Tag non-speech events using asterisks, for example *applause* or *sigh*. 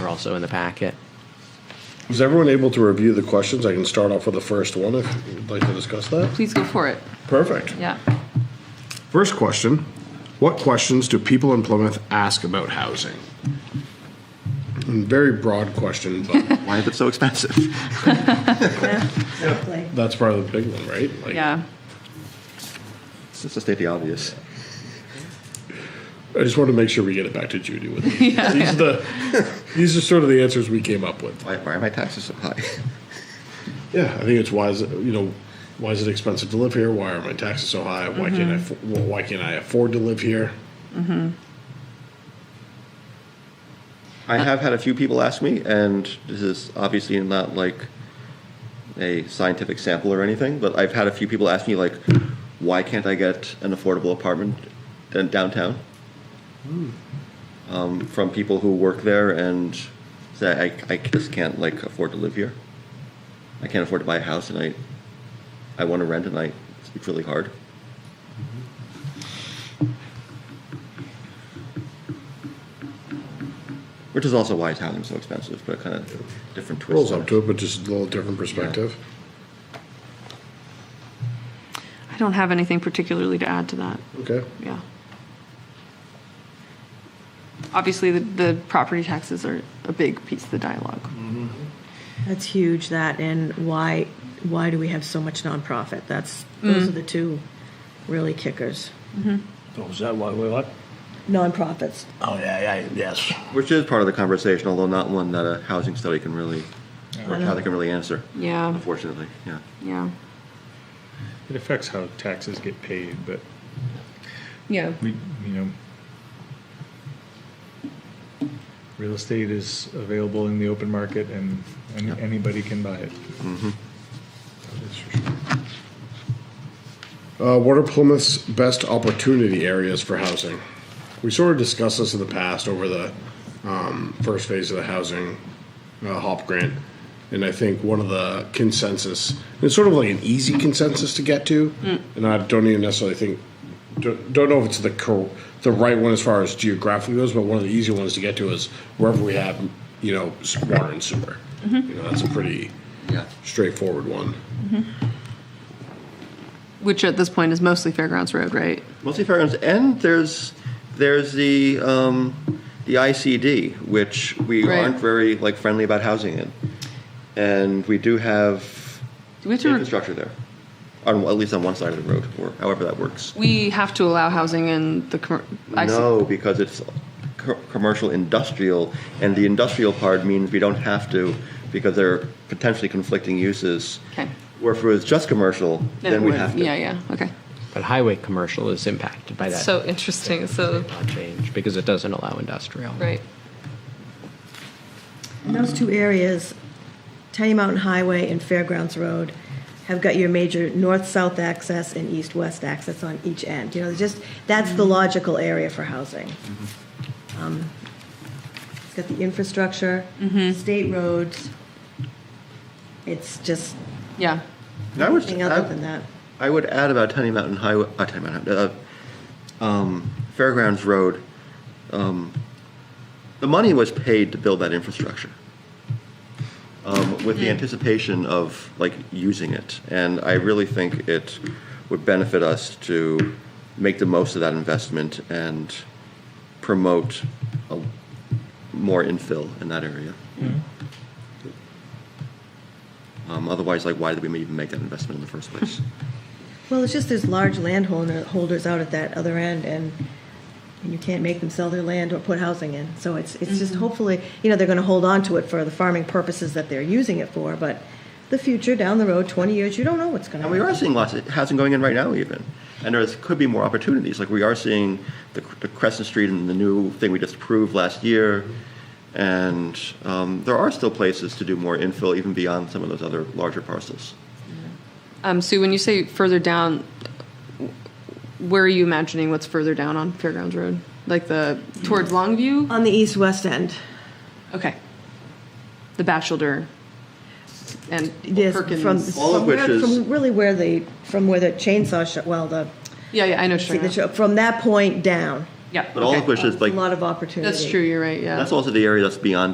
also in the packet. Was everyone able to review the questions? I can start off with the first one if you'd like to discuss that. Please go for it. Perfect. Yeah. First question What questions do people in Plymouth ask about housing? Very broad question, *laughs* but Why is it so expensive? that's probably the big one, right? Like, Yeah. It's just to state the obvious. I just want to make sure we get it back to Judy with *laughs* these. These are the these are sort of the answers we came up with. Why, why are my taxes so high? *laughs* Yeah, I think it's why is it, you know why is it expensive to live here? Why are my taxes so high? Why can't I affo- Mm-hmm. well, why can't I afford to live here? I have had a few people ask me, and this is obviously not like a scientific sample or anything, but I've had a few people ask me, like, why can't I get an affordable apartment in downtown? Um, from people who work there and say, I, I just can't like afford to live here. I can't afford to buy a house, and I, I want to rent, and I, it's really hard. Which is also why housing is so expensive, but kind of different twist. Rolls on up to it, but just a little different perspective. I don't have anything particularly to add to that. Okay. Yeah. Obviously, the, the property taxes are a big piece of the dialogue. Mm-hmm. That's huge, that, and why, why do we have so much nonprofit? That's, those are the two really kickers. Oh, is that why we what? Nonprofits, Oh, yeah, yeah, yes. Which is part of the conversation, although not one that a housing study can really, or how they can really answer, Yeah. unfortunately, yeah. Yeah. It affects how taxes get paid, but Yeah. we, you know, real estate is available in the open market and any, anybody can buy it. Uh, what are Plymouth's best opportunity areas for housing? We sort of discussed this in the past over the um, first phase of the housing uh, HOP grant. And I think one of the consensus, it's sort of like an easy consensus to get to. And I don't even necessarily think, don't, don't know if it's the cor- the right one as far as geographically goes, but one of the easy ones to get to is wherever we have, you know, s- water and sewer. You know, that's a pretty Yeah. straightforward one. Which at this point is mostly Fairgrounds Road, right? Mostly fairgrounds, and there's, there's the, um, the ICD, which we Right. aren't very, like, friendly about housing in. And we do have Do we have to? infrastructure there, on, at least on one side of the road, or however that works. we have to allow housing in the. commer- I see. No, because it's co- commercial industrial, and the industrial part means we don't have to, because there are potentially conflicting uses. Okay. Where if it was just commercial, then we would- have to. Yeah. Yeah. Okay. But highway commercial is impacted by that So interesting. So, law change because it doesn't allow industrial. right. And those two areas, Tenny Mountain Highway and Fairgrounds Road, have got your major north-south access and east-west access on each end. You know, just, that's the logical area for housing. Um, It's got the infrastructure, state roads. It's just Yeah. And I would, Anything other than that? I would add about Tenny Mountain Highway, uh, Tenny Mountain, uh, um, Fairgrounds Road. Um, the money was paid to build that infrastructure. Um, with the anticipation of like using it, and I really think it would benefit us to make the most of that investment and promote a, more infill in that area. Um, otherwise, like, why did we even make that investment in the first place? Well, it's just there's large landholder holders out at that other end, and, and you can't make them sell their land or put housing in. So it's it's just Mm-hmm. hopefully, you know, they're going to hold on to it for the farming purposes that they're using it for. But the future down the road, 20 years, you don't know what's going to. And we are seeing lots of housing going in right now, even. And there could be more opportunities. Like we are seeing the, the Crescent Street and the new thing we just approved last year. And um, there are still places to do more infill, even beyond some of those other larger parcels. Um, Sue, when you say further down, where are you imagining what's further down on Fairgrounds Road? Like the towards Longview? on the east west end. Okay. The Bachelor and Yes, Perkins. from All of from which where- is- from really where the from where the chainsaw shop. Well, the yeah, yeah, I know. what see you're the talking about. shop- from that point down, Yeah. But all okay. of which is a like, lot of opportunity. That's true. You're right. Yeah. that's also the area that's beyond